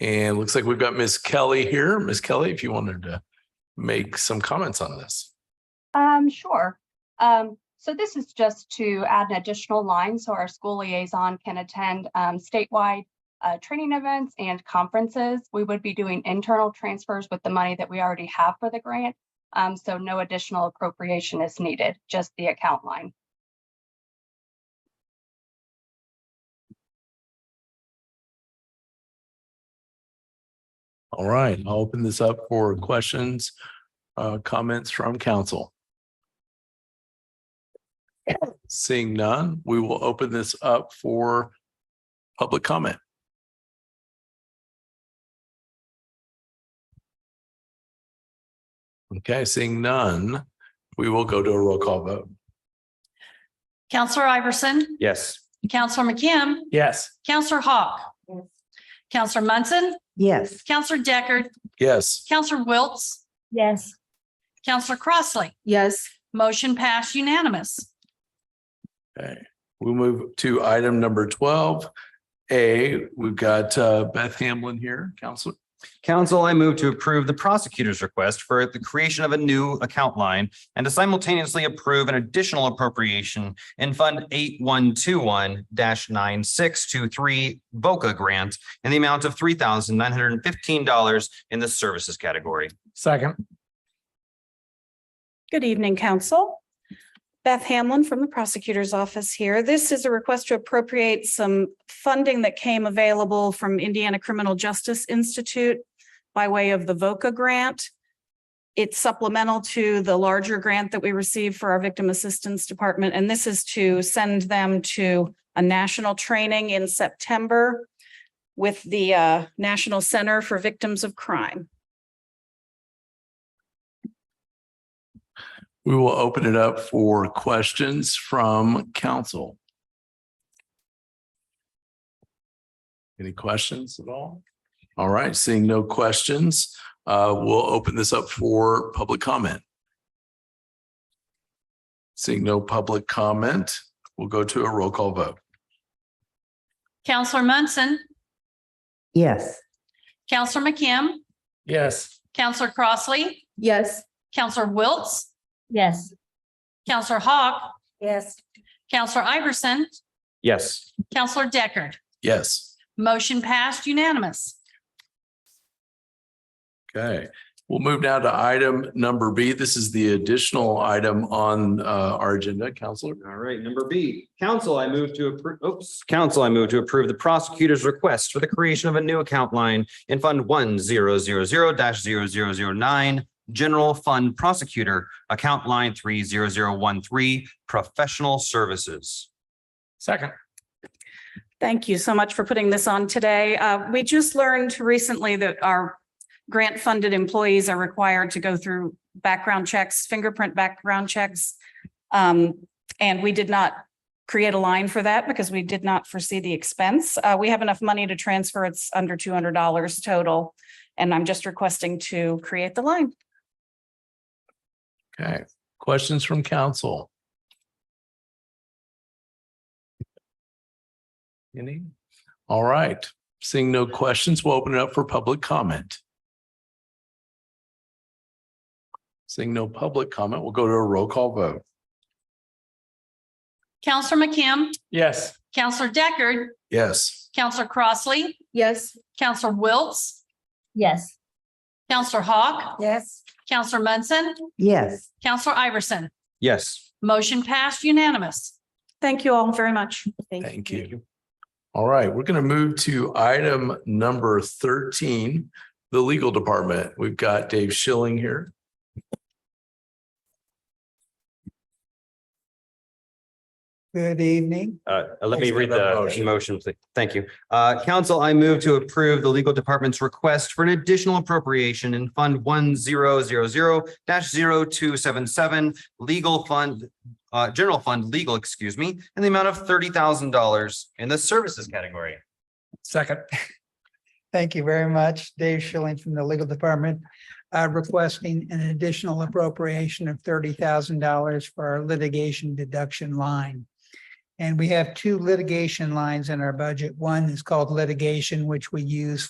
And looks like we've got Ms. Kelly here. Ms. Kelly, if you wanted to make some comments on this. Um, sure. Um, so this is just to add an additional line so our school liaison can attend um, statewide uh, training events and conferences. We would be doing internal transfers with the money that we already have for the grant. Um, so no additional appropriation is needed, just the account line. All right, I'll open this up for questions, uh, comments from council. Seeing none, we will open this up for public comment. Okay, seeing none, we will go to a roll call vote. Counselor Iverson, Yes. Counselor McKim, Yes. Counselor Hawk, Counselor Munson, Yes. Counselor Deckard, Yes. Counselor Wiltz, Yes. Counselor Crossley. Yes. Motion passed unanimous. Okay, we move to item number twelve. A, we've got uh, Beth Hamlin here, counselor. Council, I move to approve the prosecutor's request for the creation of a new account line and to simultaneously approve an additional appropriation in Fund eight one two one nine six two three Boca Grant in the amount of three thousand nine hundred and fifteen dollars in the services category. Second. Good evening, council. Beth Hamlin from the prosecutor's office here. This is a request to appropriate some funding that came available from Indiana Criminal Justice Institute by way of the VOCA grant. It's supplemental to the larger grant that we received for our Victim Assistance Department, and this is to send them to a national training in September with the uh, National Center for Victims of Crime. We will open it up for questions from council. Any questions at all? All right, seeing no questions, uh, we'll open this up for public comment. Seeing no public comment, we'll go to a roll call vote. Counselor Munson, Yes. Counselor McKim, Yes. Counselor Crossley, Yes. Counselor Wiltz, Yes. Counselor Hawk, Yes. Counselor Iverson, Yes. Counselor Deckard. Yes. Motion passed unanimous. Okay, we'll move now to item number B. This is the additional item on uh, our agenda, Counselor. All right, number B, council, I move to approve, oops, council, I move to approve the prosecutor's request for the creation of a new account line in Fund one zero zero zero 9 General Fund Prosecutor, account line three zero zero one three, Professional Services. Second. Thank you so much for putting this on today. Uh, we just learned recently that our grant funded employees are required to go through background checks, fingerprint background checks. Um, and we did not create a line for that because we did not foresee the expense. Uh, we have enough money to transfer. It's under two hundred dollars total. And I'm just requesting to create the line. Okay, questions from council? Any? All right, seeing no questions, we'll open it up for public comment. Seeing no public comment, we'll go to a roll call vote. Counselor McKim, Yes. Counselor Deckard, Yes. Counselor Crossley, Yes. Counselor Wiltz, Yes. Counselor Hawk, Yes. Counselor Munson, Yes. Counselor Iverson. Yes. Motion passed unanimous. Thank you all very much. Thank you. All right, we're going to move to item number thirteen, the legal department. We've got Dave Schilling here. Good evening. Uh, let Thanks me for read that the motion. motion, please. Thank you. Uh, council, I move to approve the legal department's request for an additional appropriation in Fund one zero zero zero 277 legal fund, uh, general fund legal, excuse me, in the amount of thirty thousand dollars in the services category. Second. Thank you very much. Dave Schilling from the Legal Department, uh, requesting an additional appropriation of thirty thousand dollars for our litigation deduction line. And we have two litigation lines in our budget. One is called litigation, which we use